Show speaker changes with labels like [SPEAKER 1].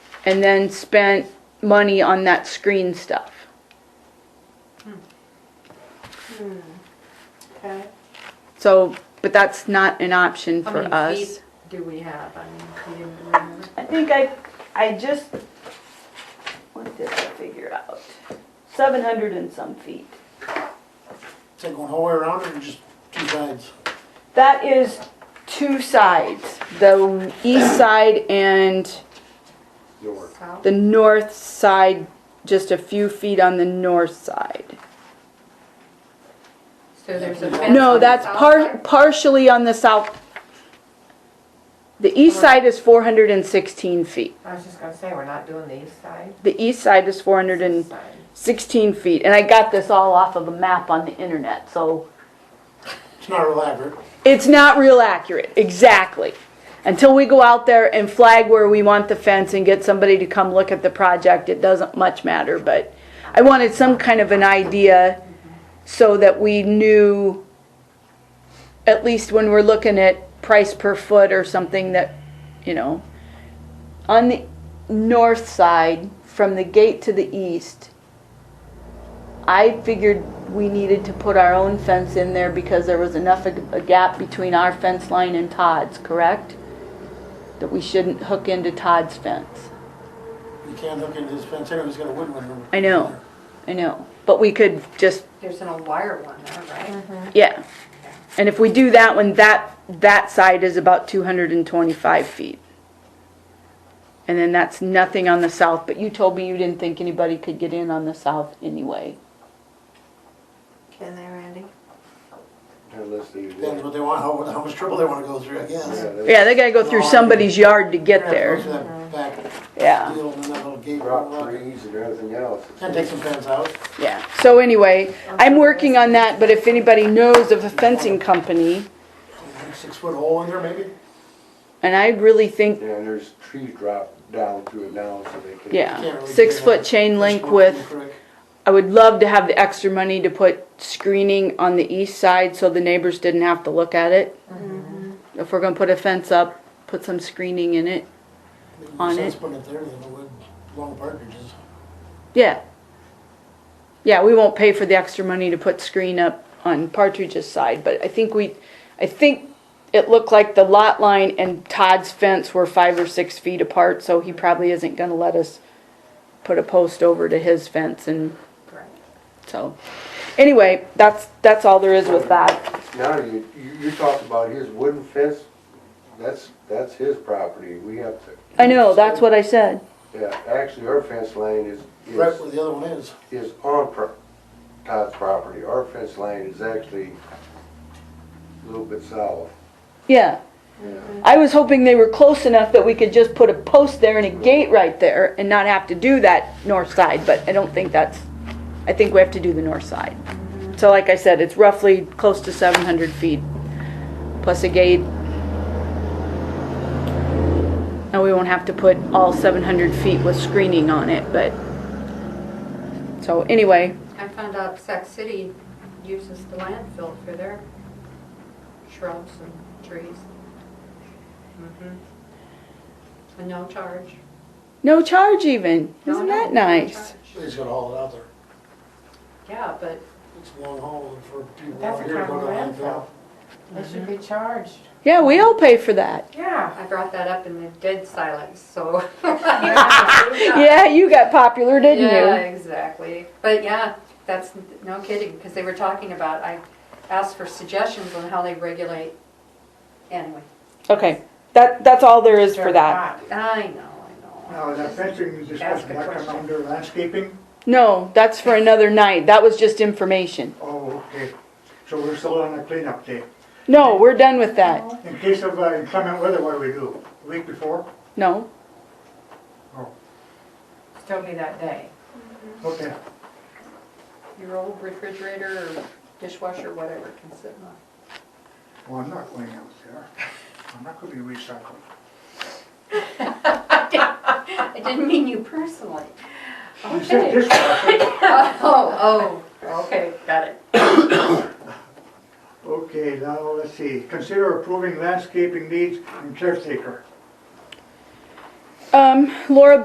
[SPEAKER 1] and then spent money on that screen stuff.
[SPEAKER 2] Okay.
[SPEAKER 1] So, but that's not an option
[SPEAKER 2] How
[SPEAKER 1] for
[SPEAKER 2] many
[SPEAKER 1] us.
[SPEAKER 2] feet Do we have? I mean, do you remember?
[SPEAKER 3] I think I, I just, what did I figure out? Seven hundred and some feet.
[SPEAKER 4] Take one whole way around or just two sides?
[SPEAKER 3] That is two sides.
[SPEAKER 1] The east side and
[SPEAKER 5] York.
[SPEAKER 2] South?
[SPEAKER 1] the north side, just a few feet on the north side.
[SPEAKER 2] So there's a fence. on
[SPEAKER 1] No,
[SPEAKER 2] the
[SPEAKER 1] that's
[SPEAKER 2] south
[SPEAKER 1] par-
[SPEAKER 2] side?
[SPEAKER 1] partially on the south. The east side is four hundred and sixteen feet.
[SPEAKER 6] I was just gonna say, we're not doing the east side.
[SPEAKER 1] The east side is four hundred and 16 feet, and I got this all off of a map on the internet, so
[SPEAKER 4] It's not elaborate.
[SPEAKER 1] it's not real accurate, exactly. Until we go out there and flag where we want the fence and get somebody to come look at the project, it doesn't much matter, but I wanted some kind of an idea so that we knew, at least when we're looking at price per foot or something that, you know. On the north side, from the gate to the east, I figured we needed to put our own fence in there because there was enough of a gap between our fence line and Todd's, correct? That we shouldn't hook into Todd's fence.
[SPEAKER 4] You can't hook into this fence, anybody's got a wooden one.
[SPEAKER 1] I know, I know, but we could just,
[SPEAKER 2] There's an old wire one there, right?
[SPEAKER 1] yeah. And if we do that one, that, that side is about two hundred and twenty-five feet. And then that's nothing on the south, but you told me you didn't think anybody could get in on the south anyway.
[SPEAKER 2] Can they, Randy?
[SPEAKER 5] Unless they.
[SPEAKER 4] Depends what they want, how, how much trouble they wanna go through, I guess.
[SPEAKER 5] Yeah, they-
[SPEAKER 1] Yeah, they gotta go through somebody's yard to get
[SPEAKER 4] Go through
[SPEAKER 1] there,
[SPEAKER 4] that back
[SPEAKER 1] yeah.
[SPEAKER 4] deal and then that little gate.
[SPEAKER 5] Rock trees and everything else.
[SPEAKER 4] Can take some fence out.
[SPEAKER 1] Yeah, so anyway, I'm working on that, but if anybody knows of a fencing company,
[SPEAKER 4] Six foot hole in there maybe?
[SPEAKER 1] and I really think,
[SPEAKER 5] Yeah, and there's trees dropped down through it now, so they can.
[SPEAKER 4] Can't
[SPEAKER 1] yeah,
[SPEAKER 4] really
[SPEAKER 1] six
[SPEAKER 4] do
[SPEAKER 1] foot
[SPEAKER 4] that.
[SPEAKER 1] chain
[SPEAKER 4] Just
[SPEAKER 1] link
[SPEAKER 4] walk real
[SPEAKER 1] with,
[SPEAKER 4] quick.
[SPEAKER 1] I would love to have the extra money to put screening on the east side so the neighbors didn't have to look at it. If we're gonna put a fence up, put some screening in it,
[SPEAKER 4] Makes
[SPEAKER 1] on
[SPEAKER 4] sense
[SPEAKER 1] it.
[SPEAKER 4] Putting it there, than it would long partridges.
[SPEAKER 1] yeah. Yeah, we won't pay for the extra money to put screen up on Partridge's side, but I think we, I think it looked like the lot line and Todd's fence were five or six feet apart, so he probably isn't gonna let us put a post over to his fence and,
[SPEAKER 2] Right.
[SPEAKER 1] so. Anyway, that's, that's all there is with that.
[SPEAKER 5] Now, you, you, you talked about his wooden fence, that's, that's his property, we have to.
[SPEAKER 1] I know, that's what I said.
[SPEAKER 5] Yeah, actually, our fence line is,
[SPEAKER 4] Right where
[SPEAKER 5] is,
[SPEAKER 4] the other one is.
[SPEAKER 5] is on pro- Todd's property, our fence line is actually a little bit south.
[SPEAKER 1] Yeah,
[SPEAKER 5] Yeah.
[SPEAKER 1] I was hoping they were close enough that we could just put a post there and a gate right there and not have to do that north side, but I don't think that's, I think we have to do the north side.
[SPEAKER 2] Mm-hmm.
[SPEAKER 1] So like I said, it's roughly close to seven hundred feet, plus a gate. And we won't have to put all seven hundred feet with screening on it, but, so anyway,
[SPEAKER 2] I found out Sac City uses the landfill for their shrubs and trees. Mhm. And no charge.
[SPEAKER 1] no charge even,
[SPEAKER 2] No,
[SPEAKER 1] isn't
[SPEAKER 2] no,
[SPEAKER 1] that
[SPEAKER 2] no
[SPEAKER 1] nice?
[SPEAKER 2] charge.
[SPEAKER 4] They just gotta haul it out there.
[SPEAKER 2] Yeah, but
[SPEAKER 4] It's a long haul for people
[SPEAKER 6] That's
[SPEAKER 4] out
[SPEAKER 6] a
[SPEAKER 4] here to go to
[SPEAKER 6] kind of
[SPEAKER 4] landfill.
[SPEAKER 6] They should
[SPEAKER 2] Mhm.
[SPEAKER 6] be charged.
[SPEAKER 1] Yeah, we all pay for that.
[SPEAKER 6] Yeah.
[SPEAKER 2] I brought that up in the dead silence, so.
[SPEAKER 1] Yeah, you got popular, didn't you?
[SPEAKER 2] Yeah, exactly. But yeah, that's, no kidding, because they were talking about, I asked for suggestions on how they regulate. Anyway,
[SPEAKER 1] Okay, that, that's all there is for that.
[SPEAKER 2] I know, I know.
[SPEAKER 7] Now, that fencing you discussed,
[SPEAKER 2] Ask a
[SPEAKER 7] that come
[SPEAKER 2] question.
[SPEAKER 7] under landscaping?
[SPEAKER 1] No, that's for another night, that was just information.
[SPEAKER 7] Oh, okay. So we're still on a cleanup day.
[SPEAKER 1] No, we're done with that.
[SPEAKER 7] In case of uh, inclement weather, what do we do? The Week before? Oh,
[SPEAKER 1] No,
[SPEAKER 6] Still be that day.
[SPEAKER 7] Okay.
[SPEAKER 2] Your old refrigerator or dishwasher, whatever, can sit on.
[SPEAKER 7] Well, I'm not going out there. I'm not gonna be recycling.
[SPEAKER 2] I didn't mean you personally.
[SPEAKER 7] You said
[SPEAKER 2] Okay.
[SPEAKER 7] this one.
[SPEAKER 2] Oh, oh, okay, got it.
[SPEAKER 7] Okay, now, let's see. Consider approving landscaping needs and caretaker.
[SPEAKER 1] um, Laura